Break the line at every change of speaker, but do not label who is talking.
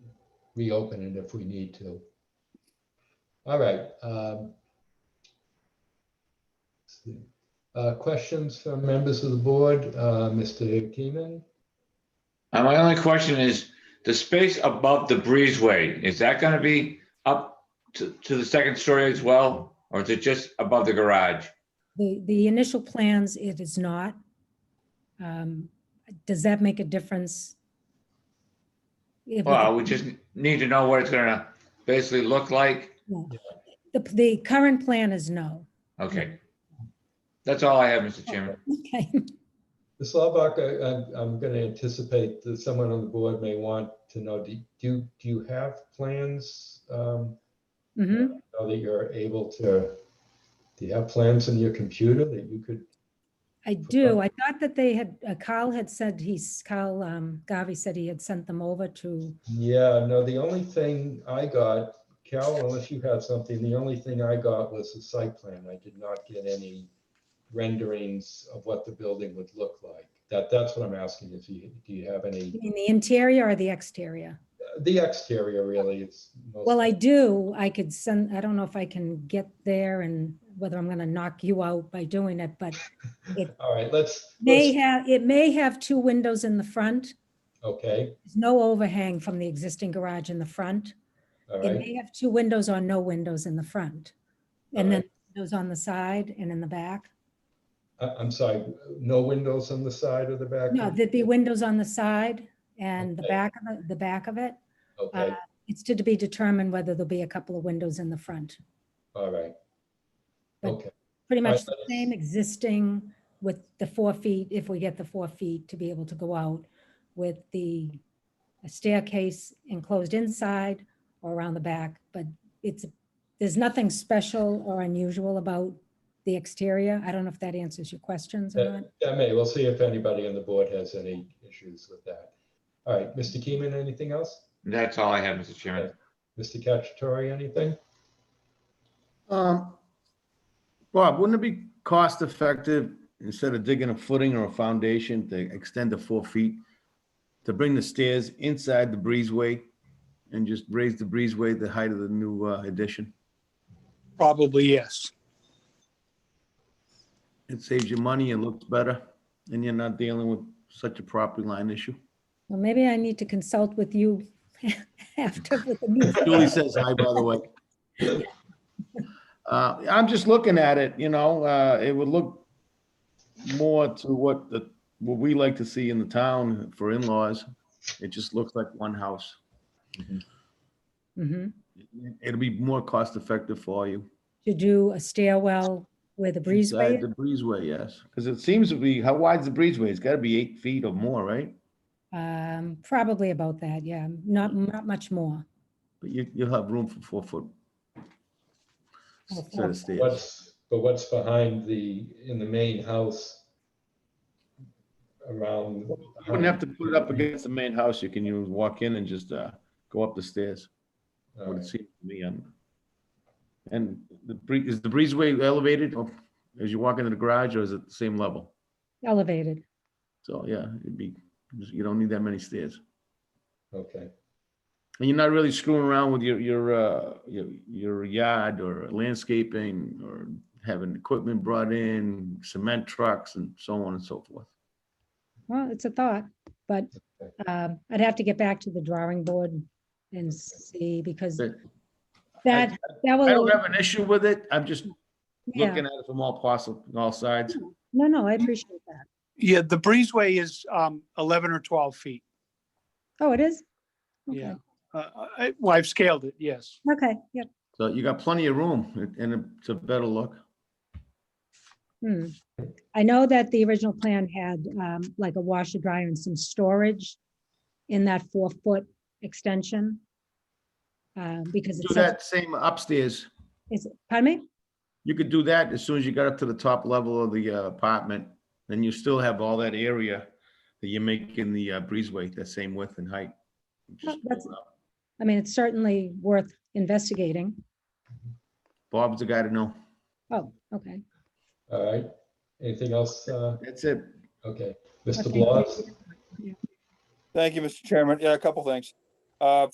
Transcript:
reopen it if we need to. All right. um, let's see. Uh, Questions from members of the board? Uh, Mr. Keeman?
Uh, my only question is, the space above the breezeway, is that gonna be up to, to the second story as well? Or is it just above the garage?
The, the initial plans, it is not. Um, Does that make a difference? If-
Well, we just need to know what it's gonna basically look like.
The, the current plan is no.
Okay. That's all I have, Mr. Chairman.
Okay,
Ms. Laubach, I- I'm, I'm going to anticipate that someone on the board may want to know, do you, do you have plans? um,
Mhm.
Now that you're able to, do you have plans on your computer that you could,
I do. I thought that they had, uh, Kyle had said he's, Kyle um, Garvey said he had sent them over to,
yeah, no, the only thing I got, Cal, unless you have something, the only thing I got was the site plan. I did not get any renderings of what the building would look like. That, that's what I'm asking, if you, do you have any,
you mean the interior or the exterior?
the exterior really is. most-
Well, I do. I could send, I don't know if I can get there and whether I'm going to knock you out by doing it, but
All right, let's.
may
let's-
have, it may have two windows in the front.
Okay,
There's no overhang from the existing garage in the front.
all
It
right,
may have two windows or no windows in the front. And then
Alright.
windows on the side and in the back.
I, I'm sorry, no windows on the side or the back?
No, there'd be windows on the side and the
Okay.
back of the, the back of it.
Okay,
It's to be determined whether there'll be a couple of windows in the front.
all right.
uh, but-
Okay,
Pretty
Right,
much the
but it's-
same existing with the four feet, if we get the four feet to be able to go out with the staircase enclosed inside or around the back, but it's, there's nothing special or unusual about the exterior. I don't know if that answers your questions or not.
that that may, we'll see if anybody on the board has any issues with that. All right, Mr. Keeman, anything else?
That's all I have, Mr. Chairman.
Mr. Cacciatore, anything?
Um, Bob, wouldn't it be cost effective, instead of digging a footing or a foundation, to extend to four feet? To bring the stairs inside the breezeway and just raise the breezeway the height of the new uh, addition?
Probably yes.
It saves you money and looks better, and you're not dealing with such a property line issue.
Well, maybe I need to consult with you after with the meeting.
Julie says hi, by the way. Uh, I'm just looking at it, you know, uh, it would look more to what the, what we like to see in the town for in-laws. It just looks like one house.
Mhm.
It'll be more cost-effective for you.
To do a stairwell with a breezeway.
Inside The breezeway, yes, because it seems to be, how wide's the breezeway? It's got to be eight feet or more, right?
Um, probably about that, yeah, not, not much more.
But you, you'll have room for four foot.
Oh,
Set
four.
of stairs.
What's, but what's behind the, in the main house? Around.
You wouldn't have to put it up against the main house. You can, you walk in and just, uh, go up the stairs.
All
would
right.
seem to me. um, And the bree, is the breezeway elevated or as you walk into the garage or is it the same level?
Elevated.
So, yeah, it'd be, you don't need that many stairs.
Okay,
And you're not really screwing around with your, your, uh, your, your yard or landscaping or having equipment brought in, cement trucks and so on and so forth.
Well, it's a thought, but um, I'd have to get back to the drawing board and see because
But I-
that, that
I
will,
don't have an issue with it. I'm just
yeah,
looking at it from all possible, all sides.
no, no, I appreciate that.
Yeah, the breezeway is um, 11 or 12 feet.
Oh, it is? Okay.
Yeah. Uh, I- Well, I've scaled it, yes.
Okay, yep.
So you got plenty of room and it's a better look.
Hmm. I know that the original plan had um, like a washer dryer and some storage in that four-foot extension. uh, Because
Do
it's, such-
that same upstairs.
is, pardon me?
You could do that as soon as you got up to the top level of the uh, apartment, then you still have all that area that you make in the uh, breezeway, that same width and height. Just uh,
Oh, that's-
pull it up.
I mean, it's certainly worth investigating.
Bob's the guy to know.
Oh, okay.
all right. Anything else? uh,
That's it.
Okay,
Okay,
Mr.
thank you.
Blas?
Thank you, Mr. Chairman. Yeah, a couple things. Uh,